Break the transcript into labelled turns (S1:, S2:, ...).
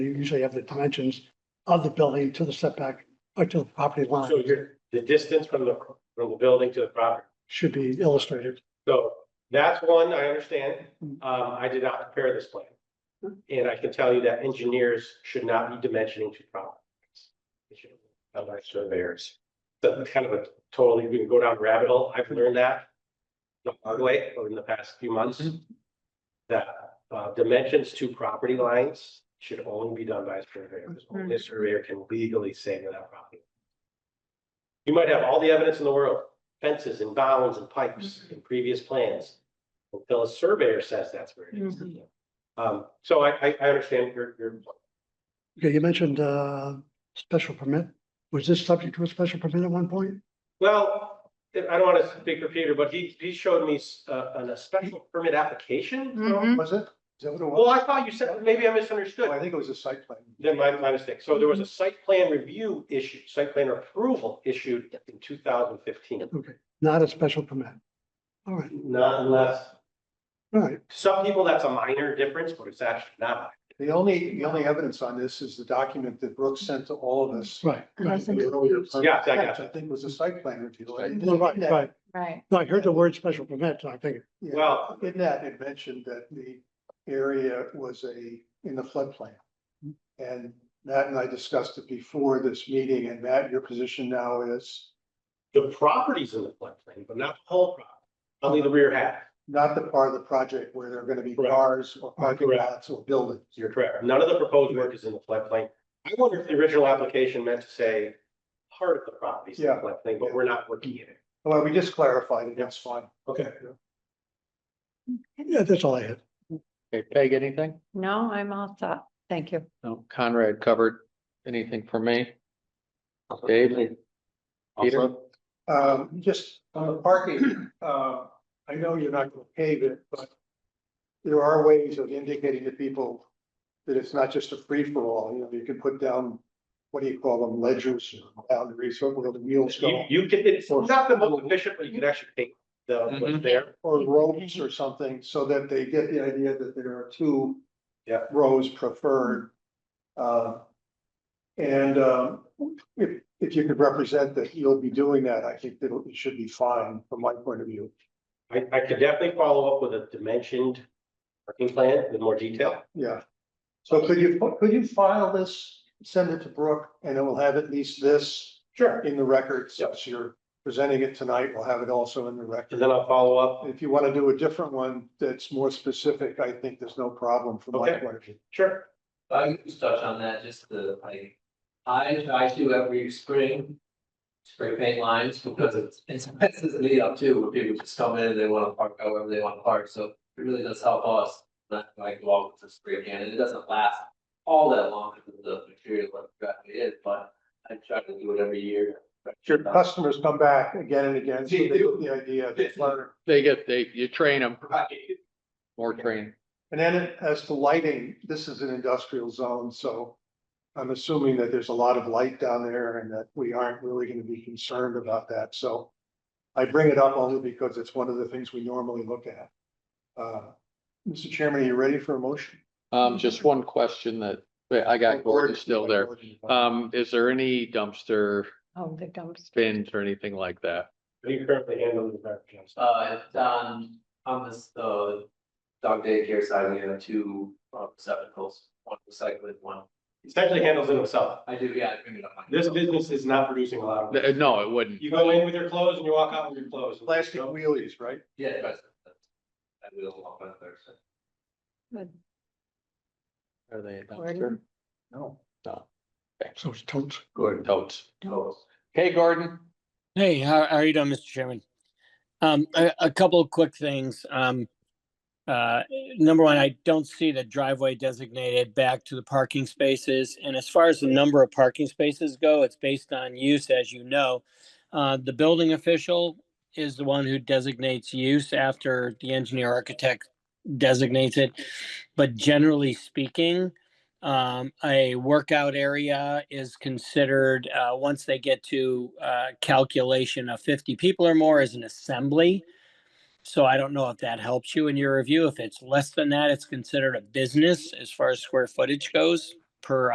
S1: you usually have the dimensions of the building to the setback or to the property line
S2: So you're, the distance from the, from the building to the property.
S1: should be illustrated.
S2: So that's one, I understand. Um, I did not prepare this plan. And I can tell you that engineers should not be dimensioning to properties. Not by surveyors. That's kind of a totally, we can go down rabbit hole. I've learned that. The hard way over the past few months. That, uh, dimensions to property lines should only be done by a surveyor. because Only a surveyor can legally say where that property. You might have all the evidence in the world, fences and bounds and pipes
S3: Mm-hmm.
S2: and previous plans. Until a surveyor says that's where it is.
S4: Mhm.
S3: Mm-hmm.
S2: Um, so I, I, I understand your, your,
S1: Okay, you mentioned, uh, special permit. Was this subject to a special permit at one point?
S2: well, I don't want to speak for Peter, but he, he showed me, uh, an, a special permit
S3: Mm-hmm.
S2: application.
S4: Mhm.
S3: Was it? Is that what it
S2: Well,
S3: was?
S2: I thought you said, maybe I misunderstood.
S3: Oh, I think it was a site plan.
S2: Then my, my mistake. So there was a
S3: Mm-hmm.
S2: site plan review issue, site plan approval issued in two thousand fifteen.
S1: Not a special permit. All right,
S2: Not unless,
S1: all right.
S2: some people, that's a minor difference, but it's actually not.
S3: The only, the only evidence on this is the document that Brooks sent to all of us.
S1: Right, right.
S3: The earlier plan.
S2: Yeah, I
S3: I
S2: got
S3: think it was a site plan review. And
S1: No, right,
S3: in that-
S1: right.
S4: Right.
S1: No, I heard the word special permit, so I think,
S3: yeah,
S2: Well,
S3: In that, it mentioned that the area was a, in the floodplain. And Matt and I discussed it before this meeting, and Matt, your position now is
S2: the property's in the floodplain, but not the whole property, only the rear half.
S3: not the part of the project where there are gonna be
S2: Correct.
S3: cars or parking
S2: Correct.
S3: lots or buildings.
S2: You're correct. None of the proposed work is in the floodplain. I wonder if the original application meant to say part of the property's in the
S3: Yeah.
S2: floodplain, but we're not looking at it.
S3: Well, we just clarified it, that's fine.
S2: Okay.
S1: yeah, that's all I had.
S5: Okay, Peg, anything?
S4: No, I'm all set. Thank you.
S5: No, Conrad covered anything for me? Dave? Peter?
S3: Um, just on the parking, uh, I know you're not gonna pave it, but. There are ways of indicating to people that it's not just a free for all, you know, you can put down. What do you call them, ledgers, or boundaries, or where the wheels
S2: You,
S3: go,
S2: you can, it's not the most efficient, but you can actually take the, what's
S5: Mhm.
S2: there.
S3: or ropes or something, so that they get the idea that there are two.
S2: Yeah.
S3: Rows preferred. Uh, and, um, if, if you could represent that you'll be doing that, I think that it should be fine from my point of view.
S2: I, I could definitely follow up with a dimensioned working plan with more detail.
S3: Yeah. So could you, could you file this, send it to Brooke, and it will have at least this
S2: Sure.
S3: in the record, since you're presenting it tonight, we'll have it also in the
S2: And
S3: record.
S2: then I'll follow up.
S3: If you want to do a different one that's more specific, I think there's no problem from my
S2: Okay.
S3: point of view.
S2: Sure.
S6: If I could just touch on that, just the, like, I try to every spring. Spray paint lines because it's, it's messes me up too, where people just come in and they wanna park however they wanna park, so it really does help us. Not like go out with a spray can, and it doesn't last all that long because of the material that it is, but I try to do it every year.
S3: Your customers come back again and again, so they get the idea. they learn.
S5: They get, they, you train them,
S6: Right.
S5: more training.
S3: And then as to lighting, this is an industrial zone, so I'm assuming that there's a lot of light down there and that we aren't really gonna be concerned about that, so. I bring it up only because it's one of the things we normally look at. Uh, Mr. Chairman, are you ready for a motion?
S5: Um, just one question that, wait, I got Oh, Gordon still there. Um, is there any dumpster
S4: Oh, the dumpster.
S5: bins or anything like that?
S2: Are you currently handling the garbage? I'm sorry.
S6: Uh, it's on, on this, uh, dog daycare side, we have two uh, receptacles, one recycling, one.
S2: Essentially handles it himself.
S6: I do, yeah, I bring it up. on-
S2: This business is not producing a lot of.
S5: Th- Uh, No, it wouldn't.
S2: You go in with your clothes and you walk out with your clothes.
S3: Plastic wheelies, right?
S6: Yeah, that's, that's, I will walk on Thursday.
S4: Good.
S5: Are they a dumpster?
S4: Gordon?
S3: No.
S5: No,
S1: So it's totes.
S5: Gordon, totes.
S6: Totes.
S5: Hey, Gordon.
S7: Hey, how, how are you doing, Mr. Chairman? Um, a, a couple of quick things. Um, uh, number one, I don't see the driveway designated back to the parking spaces. And as far as the number of parking spaces go, it's based on use, as you know. Uh, the building official is the one who designates use after the engineer architect designates it. But generally speaking, um, a workout area is considered, uh, once they get to, uh, calculation of fifty people or more as an assembly. So I don't know if that helps you in your review. If it's less than that, it's considered a business as far as square footage goes. per